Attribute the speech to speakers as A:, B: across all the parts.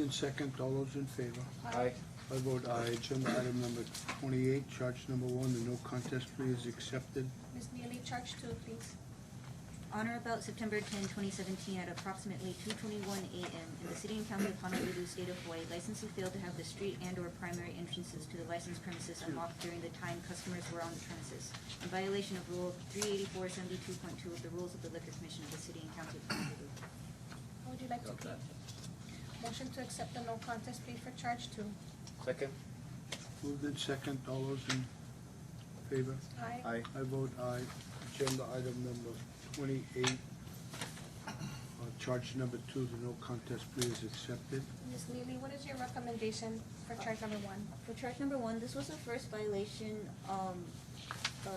A: and second, all those in favor?
B: Aye.
A: I vote aye. Agenda item number twenty-eight, charge number one, the no contest plea is accepted.
C: Ms. Neely, charge two, please.
D: On or about September 10, 2017, at approximately 2:21 a.m. in the city and county of Honolulu, state of Hawaii, licensee failed to have the street and/or primary entrances to the licensed premises unlocked during the time customers were on the premises, in violation of Rule 38472.2 of the Rules of the Liquor Commission of the city and county of Honolulu.
C: How would you like to plead? Motion to accept the no contest plea for charge two.
B: Second?
A: Moved in second, all those in favor?
C: Aye.
B: Aye.
A: I vote aye. Agenda item number twenty-eight, uh, charge number two, the no contest plea is accepted.
C: Ms. Neely, what is your recommendation for charge number one?
D: For charge number one, this was the first violation, um, uh,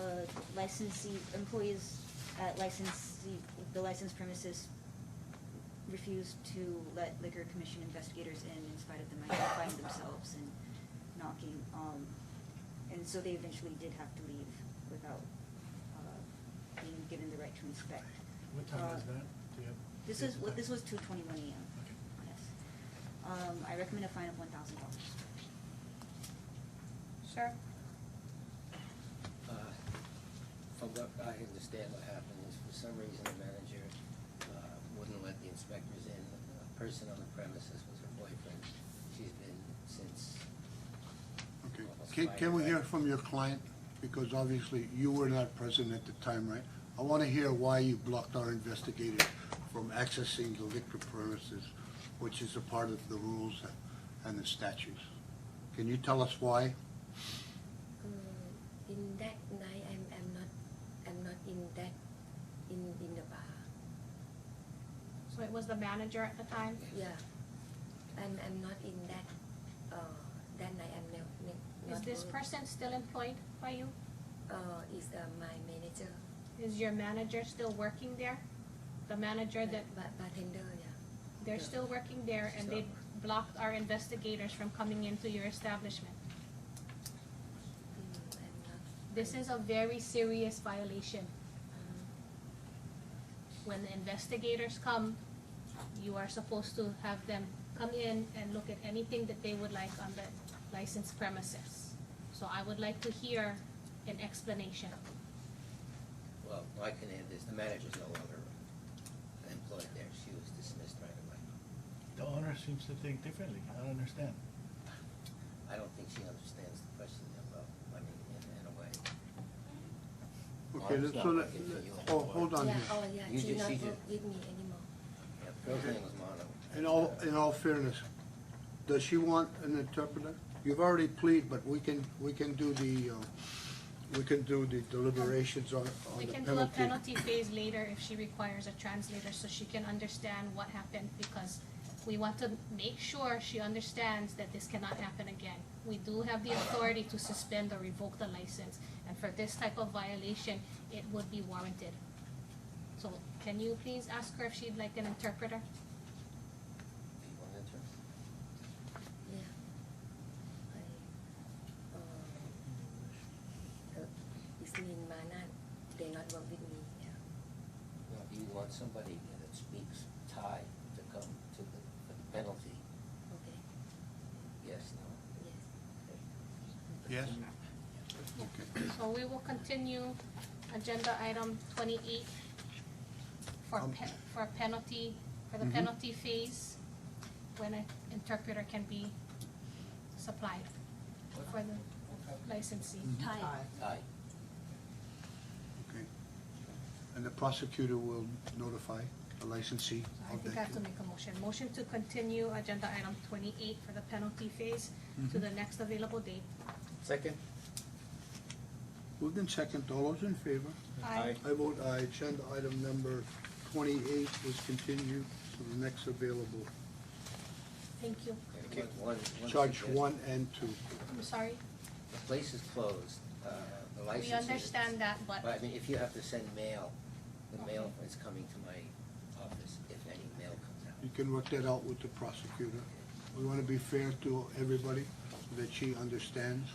D: licensee, employees at licensee, the licensed premises refused to let liquor commission investigators in in spite of them identifying themselves and knocking, um, and so they eventually did have to leave without, uh, being given the right to inspect.
E: What time is
D: Uh,
E: that? Do you have?
D: This is,
E: do you have the
D: this was
E: time?
D: two twenty-one AM,
E: Okay.
D: yes. Um, I recommend a fine of one thousand dollars.
C: Sir?
F: Uh, From what I understand, what happened is for some reason the manager uh, wouldn't let the inspectors in. A person on the premises was her boyfriend. She's been since,
A: Okay, can, can we hear from your client? Because obviously you were not present at the time, right? I wanna hear why you blocked our investigator from accessing the liquor premises, which is a part of the rules and the statutes. Can you tell us why?
G: Mm, in that night I'm I'm not I'm not in that in in the bar.
C: So it was the manager at the time?
G: Yeah. I'm I'm not in that uh that night I'm not, not
C: Is this
G: going.
C: person still employed by you?
G: uh is uh, my manager
C: Is your manager still working there? The manager that,
G: ba- bartender yeah.
C: they're still working there and they blocked our investigators from coming into your establishment.
G: Mm, I'm not Um,
C: This is a very serious violation. When the investigators come, you are supposed to have them come in and look at anything that they would like on the licensed premises. So I would like to hear an explanation.
F: well, I can add this, the manager's no longer employed there. She was dismissed right away.
E: The owner seems to think differently. I don't understand.
F: I don't think she understands the question that well, I mean, in in a way.
A: Okay,
F: Mark's
A: so
F: not
A: let,
F: working for you
A: oh,
F: anymore.
A: hold on here.
G: yeah, oh yeah,
F: You
G: she
F: just-
G: not
F: she
G: work
F: just-
G: with me anymore.
F: Yeah, Girl's name was Mono.
C: oh.
A: In all, in all fairness, does she want an interpreter? You've already plead, but we can, we can do the, uh, we can do the deliberations on,
C: We
A: on the
C: can do a
A: penalty.
C: penalty phase later if she requires a translator so she can understand what happened because we want to make sure she understands that this cannot happen again. We do have the authority to suspend or revoke the license and for this type of violation, it would be warranted. So can you please ask her if she'd like an interpreter?
F: Do you want to enter?
G: Yeah. I uh, uh it's me and Mana they not work with me, yeah.
F: Now, if you want somebody that speaks Thai to come to the the penalty,
G: Okay,
F: yes, no?
G: yes.
A: Yes? Okay.
C: So we will continue agenda item twenty-eight for
A: Um,
C: pe- for penalty, for the
A: Mhm.
C: penalty phase, when an interpreter can be supplied for the licensee.
A: Mm.
D: Aye.
F: Thai.
A: Okay. And the prosecutor will notify the licensee
C: So I
A: of
C: think I
A: that.
C: have to make a motion. Motion to continue agenda item twenty-eight for the penalty phase
A: Mm-hmm.
C: to the next available date.
B: Second?
A: Moved in second, all those in favor?
B: Aye.
A: I vote aye, agenda item number twenty-eight is continued to the next available.
C: Thank you.
F: Okay, one, one.
A: Charge
F: suggestion.
A: one and two.
C: I'm sorry.
F: The place is closed, uh, the license
C: We
F: is.
C: understand that,
F: But
C: but
F: I mean, if you have to send mail, the mail
C: Okay.
F: is coming to my office, if any mail comes out.
A: You can work that out with the prosecutor. We want to be fair to everybody, that she understands.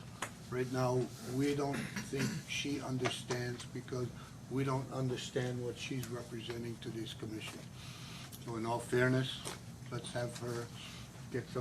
A: Right now, we don't think she understands because we don't understand what she's representing to this commission. So in all fairness, let's have her get some